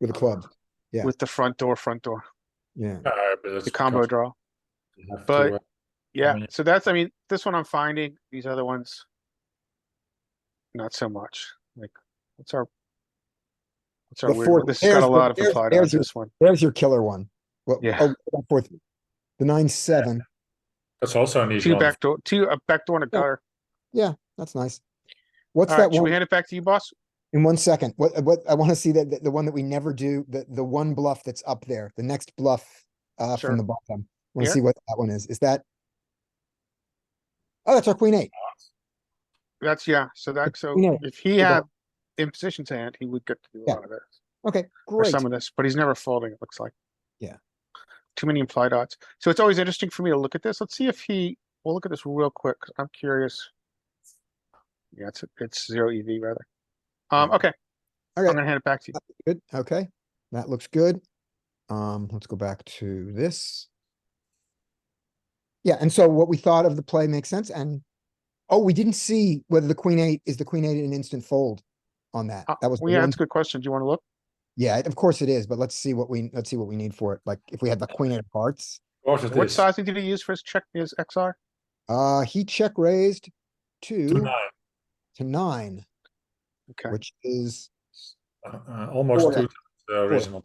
with a club. Yeah. with the front door, front door, Yeah. Uh, but that's the combo because draw. you have to, but- uh, Yeah, mean- so that's, I mean, this one I'm finding, these other ones. Not so much, like, what's our? What's our The weird, fourth- one? this has got a there's- lot of there's- implied on there's your- this one, There's your killer one. Well, Yeah. oh, that fourth, the nine, seven. that's also an easy two one. backdoor, two, a backdoor and a Yeah. gutter. That's nice. What's that Alright, should we one? hand it back to you, boss? In one second, what, what, I want to see that, that- the one that we never do, the, the one bluff that's up there, the next bluff, uh, Sure. from the bottom. Want Here? to see what that one is. Is that? Oh, that's our queen eight. That's, yeah, so that, so Yeah, if he yeah. had in position to hand, he would get to do a Yeah, lot of it, Okay, or great. some of this, but he's never folding, it looks like. Yeah. Too many implied odds, so it's always interesting for me to look at this, let's see if he, we'll look at this real quick, 'cause I'm curious. Yeah, it's, it's zero EV rather. Um, okay, Okay, I'm gonna hand it back to you. good. Okay, that looks good. Um, let's go back to this. Yeah, and so what we thought of the play makes sense and, oh, we didn't see whether the queen eight, is the queen eight an instant fold on that? Uh, That was the well, Yeah, one that's a good question. Do you wanna look? Yeah, of course it is, but let's see what we, let's see what we need for it. Like if we had the queen of hearts, Of course it What is. sizing did he use for his check, his XR? uh, he check raised Two two nine, to nine, Okay, which is, uh, uh, almost Four. two times the original.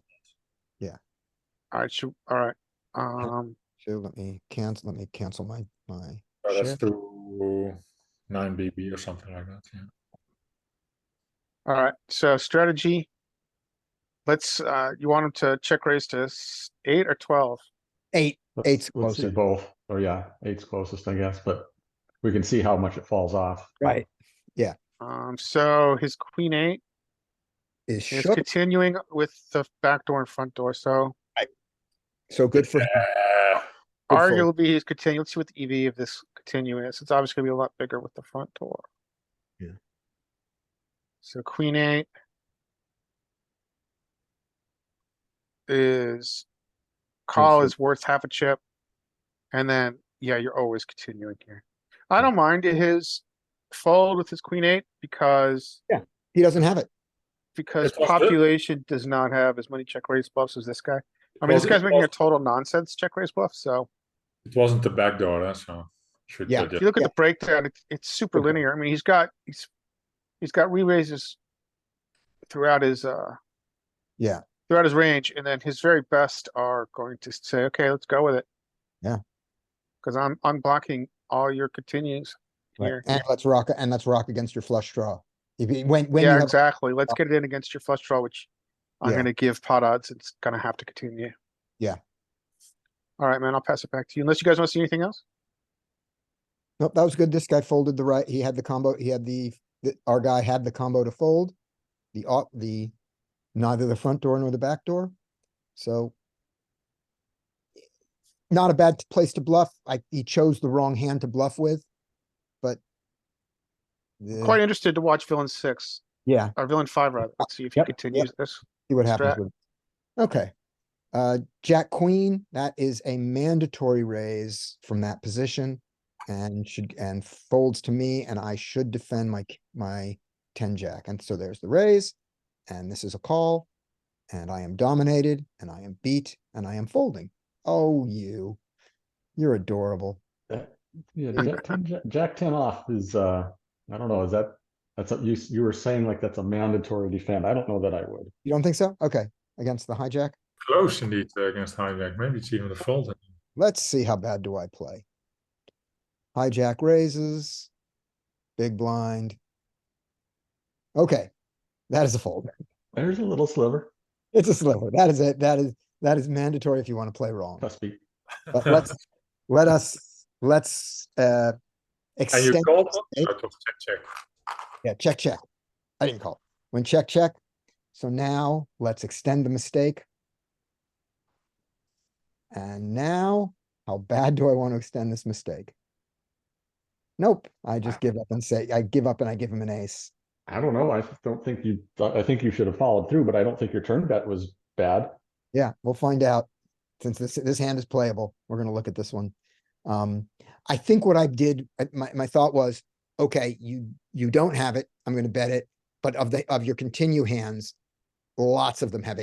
alright, shoot, alright, um, so let me cancel, let me cancel my, my, So Sure. that's two nine BB or something like that. Yeah. alright, so strategy. Let's, uh, you want him to check raise to s- eight or twelve? eight, eight's We'll see closer. both, or yeah, eight's closest, I guess, but we can see how much it falls off. Right. Um, so his queen eight Is is shook, continuing with the back door and front door, so so good for, Uh, Yeah. Good fold. arguably he's continuing, let's see what the EV of this continue is. It's obviously gonna be a lot bigger with the front door. Yeah. So queen eight. Is call so- is worth half a chip. And then, yeah, you're always continuing here. I don't mind his fold with his queen eight because, he doesn't have it. because It's all good. population does not have as many check raise bluffs as this guy. I mean, this Wasn't- guy's making a total nonsense check raise bluff, so. It wasn't the back door, eh, so. should Yeah. they If just- you look at the breakdown, it's, it's super Okay. linear. I mean, he's got, he's, he's got re-raises throughout his, uh, Yeah. throughout his range, and then his very best are going to say, okay, let's go with it. Yeah. Cause I'm unblocking all your continues here. And let's rock, and let's rock against your flush draw. If, you- when, when you Yeah, have, Oh. exactly. Let's get it in against your flush draw, which I'm Yeah. gonna give pot odds. It's gonna have to continue. Yeah. Alright, man, I'll pass it back to you. Unless you guys wanna see anything else? nope, that was good. This guy folded the right, he had the combo, he had the, the- our guy had the combo to fold. The, au- the, neither the front door nor the back door, so. Not a bad place to bluff. I, he chose the wrong hand to bluff with, but. the- Quite interested to watch villain six, Yeah, or villain five rather, Let's see if he Uh, Yep, yep. continues this. see what happens strat. with. Okay. Uh, Jack Queen, that is a mandatory raise from that position. And should, and folds to me, and I should defend my, k- my ten jack. And so there's the raise. And this is a call. And I am dominated, and I am beat, and I am folding. Oh, you. You're adorable. That- Yeah, Jack ten, Jack- Jack ten off is, uh, I don't know, is that, that's, a- you, s- you were saying like that's a mandatory defend. I don't know that I would. You don't think so? Okay, against the hijack. Close indeed uh, against hijack, maybe it's even the fold. Let's see how bad do I play. Hijack raises. Big blind. Okay, that is a fold. There's a little sliver, It's a sliver. That is it. That is, that is mandatory if you want to play wrong. must be. But let's, let us, let's, uh. And you extend- called eight. out of check, check. Yeah, check, check. I didn't call. When check, check. So now let's extend the mistake. And now, how bad do I want to extend this mistake? Nope, I just give up and say, I give up and I give him an ace. I don't know. I just don't think you, I think you should have followed through, but I don't think your turn bet was bad. Yeah, we'll find out. Since this, this hand is playable, we're gonna look at this one. Um, I think what I did, uh, my, my thought was, okay, you, you don't have it, I'm gonna bet it. But of the, of your continue hands, lots of them have